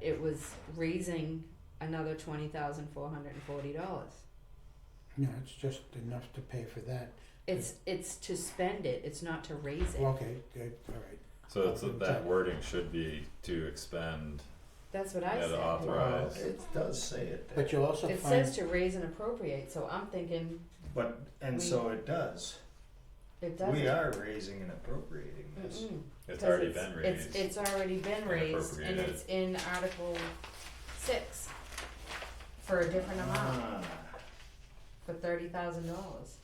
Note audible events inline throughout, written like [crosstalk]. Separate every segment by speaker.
Speaker 1: it was raising another twenty thousand four hundred and forty dollars.
Speaker 2: No, it's just enough to pay for that.
Speaker 1: It's it's to spend it, it's not to raise it.
Speaker 2: Okay, good, alright.
Speaker 3: So it's, that wording should be to expend
Speaker 1: That's what I
Speaker 3: and
Speaker 1: said.
Speaker 4: Well,
Speaker 3: authorize.
Speaker 4: it does say it there,
Speaker 2: But you'll also
Speaker 1: It
Speaker 2: find,
Speaker 1: says to raise and appropriate, so I'm thinking
Speaker 4: but, and so it does.
Speaker 1: it doesn't.
Speaker 4: We are raising and appropriating this.
Speaker 1: Mm-mm.
Speaker 3: It's
Speaker 1: 'Cause
Speaker 3: already
Speaker 1: it's-
Speaker 3: been raised.
Speaker 1: It's, it's already been
Speaker 3: and
Speaker 1: raised, and
Speaker 3: appropriated.
Speaker 1: it's in Article six for a different amount,
Speaker 4: Ah,
Speaker 1: for thirty thousand dollars.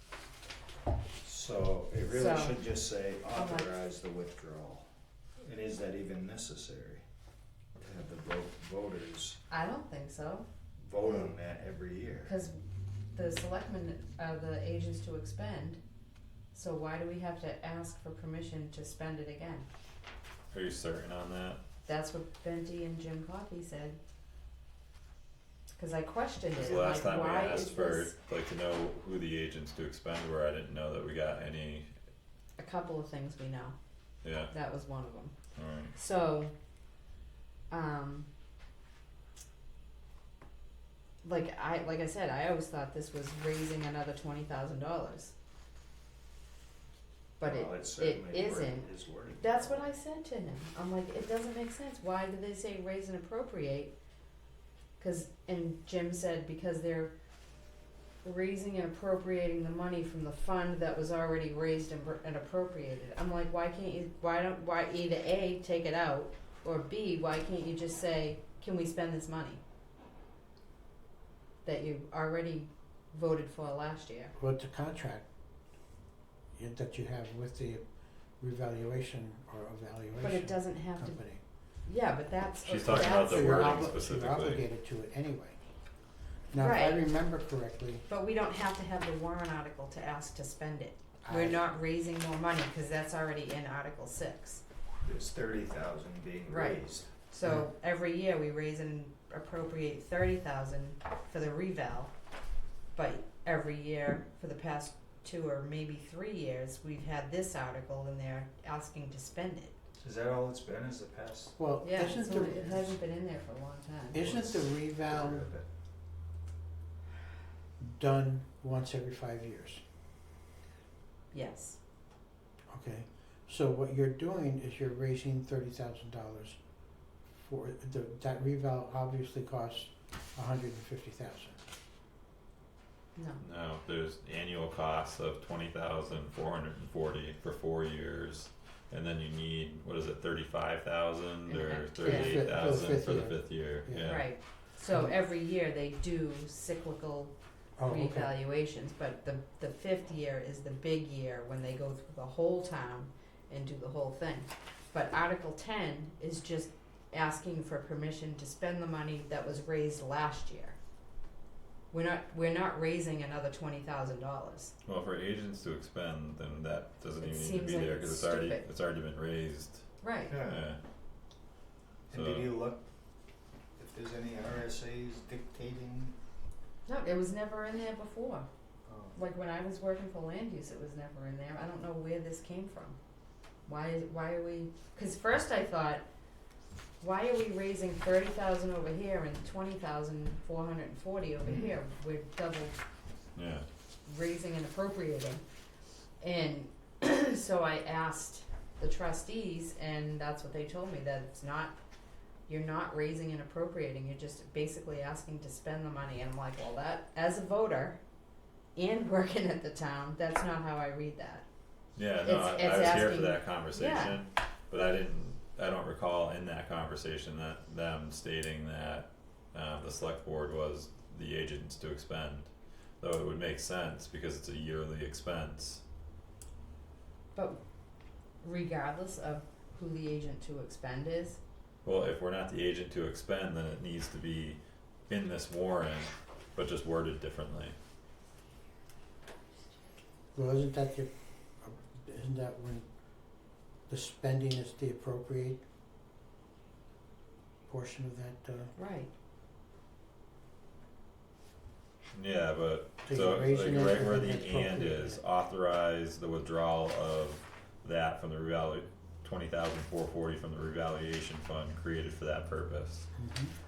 Speaker 4: So it really
Speaker 1: So-
Speaker 4: should just say
Speaker 1: much?
Speaker 4: authorize the withdrawal. And is that even necessary? To have the vote, voters
Speaker 1: I don't think so,
Speaker 4: vote on that every year.
Speaker 1: cause the selectmen are the agents to expend, so why do we have to ask for permission to spend it again?
Speaker 3: Are you certain on that?
Speaker 1: That's what Benty and Jim Coffey said. Cause I questioned
Speaker 3: Because
Speaker 1: it,
Speaker 3: the last
Speaker 1: like,
Speaker 3: time we
Speaker 1: why is
Speaker 3: asked for,
Speaker 1: this,
Speaker 3: like, to know who the agents to expend were, I didn't know that we got any,
Speaker 1: a couple of things we know,
Speaker 3: yeah,
Speaker 1: that was one of them.
Speaker 3: alright.
Speaker 1: So, um, like I like I said, I always thought this was raising another twenty thousand dollars, but it
Speaker 4: Well, it's certainly
Speaker 1: it
Speaker 4: word-
Speaker 1: isn't.
Speaker 4: is worded.
Speaker 1: that's what I said to him. I'm like, it doesn't make sense. Why do they say raise and appropriate? Because and Jim said because they're raising and appropriating the money from the fund that was already raised and, appro- and appropriated. I'm like, why can't you? Why don't? Why either a take it out or b why can't you just say can we spend this money that you already voted for last year?
Speaker 2: well, it's a contract you- that you have with the revaluation or evaluation company.
Speaker 1: But it doesn't have to. Yeah, but that's
Speaker 3: She's talking about
Speaker 1: that's-
Speaker 3: the
Speaker 2: So you're
Speaker 3: wording
Speaker 2: obli-
Speaker 3: specifically.
Speaker 2: You're obligated to it anyway. Now, if I
Speaker 1: Right.
Speaker 2: remember correctly,
Speaker 1: But we don't have to have the warrant article to ask to spend it.
Speaker 2: I-
Speaker 1: We're not raising more money, cause that's already in Article six.
Speaker 4: There's thirty thousand being
Speaker 1: Right.
Speaker 4: raised.
Speaker 1: So every year we raise and appropriate thirty thousand for the reval. But every year for the past two or maybe three years, we've had this article in there asking to spend it.
Speaker 4: Is that all it's been, is the past?
Speaker 2: well,
Speaker 1: Yeah,
Speaker 2: isn't
Speaker 1: so it
Speaker 2: the,
Speaker 1: hasn't been in there for a long time.
Speaker 2: isn't the reval
Speaker 4: quarter of it?
Speaker 2: done once every five years?
Speaker 1: Yes,
Speaker 2: Okay, so what you're doing is you're raising thirty thousand dollars for the, that reval obviously costs a hundred and fifty thousand.
Speaker 1: no,
Speaker 3: No, there's annual costs of twenty thousand four hundred and forty for four years. And then you need, what is it, thirty-five thousand or
Speaker 1: Yeah, for the fifth-
Speaker 3: thirty-eight thousand for the
Speaker 2: year.
Speaker 3: fifth year,
Speaker 2: Yeah.
Speaker 3: yeah.
Speaker 1: right. So every year they do cyclical
Speaker 2: Oh, okay,
Speaker 1: revaluations, but the, the fifth year is the big year when they go through the whole town and do the whole thing. But Article ten is just asking for permission to spend the money that was raised last year. We're not, we're not raising another twenty thousand dollars.
Speaker 3: Well, for agents to expend, then that doesn't
Speaker 1: It
Speaker 3: even need to
Speaker 1: seems
Speaker 3: be
Speaker 1: like
Speaker 3: there, cause
Speaker 1: it's
Speaker 3: it's already,
Speaker 1: stupid.
Speaker 3: it's already been raised,
Speaker 1: Right.
Speaker 3: yeah.
Speaker 4: Yeah, and did
Speaker 3: So-
Speaker 4: you look if there's any RSAs dictating?
Speaker 1: No, it was never in there before.
Speaker 4: Oh.
Speaker 1: Like when I was working for land use, it was never in there. I don't know where this came from. Why is why are we? Because first I thought, why are we raising thirty thousand over here and twenty thousand four hundred and forty over here? We're double
Speaker 3: Yeah,
Speaker 1: raising and appropriating. And [clears throat] so I asked the trustees, and that's what they told me that it's not. You're not raising and appropriating. You're just basically asking to spend the money. And I'm like, well, that as a voter, and [laughs] working at the town, that's not how I read that.
Speaker 3: yeah, no,
Speaker 1: It's-
Speaker 3: I,
Speaker 1: it's
Speaker 3: I was here
Speaker 1: asking-
Speaker 3: for that conversation, but I didn't, I don't recall in that conversation that them stating that uh, the select board was the agents to expend, though it would make sense because it's a yearly expense.
Speaker 1: But regardless of who the agent to expend is,
Speaker 3: Well, if we're not the agent to expend, then it needs to be in this warrant, but just worded differently.
Speaker 2: well, isn't that your, isn't that when the spending is the appropriate portion of that, uh,
Speaker 1: right?
Speaker 3: Yeah, but
Speaker 2: so
Speaker 3: So
Speaker 2: you're
Speaker 3: like
Speaker 2: raising it
Speaker 3: right
Speaker 2: for
Speaker 3: where
Speaker 2: the
Speaker 3: the and
Speaker 2: appropriate-
Speaker 3: is, authorize the withdrawal of that from the revalu- twenty thousand four forty from the revaluation fund created for that purpose.
Speaker 2: Mhm.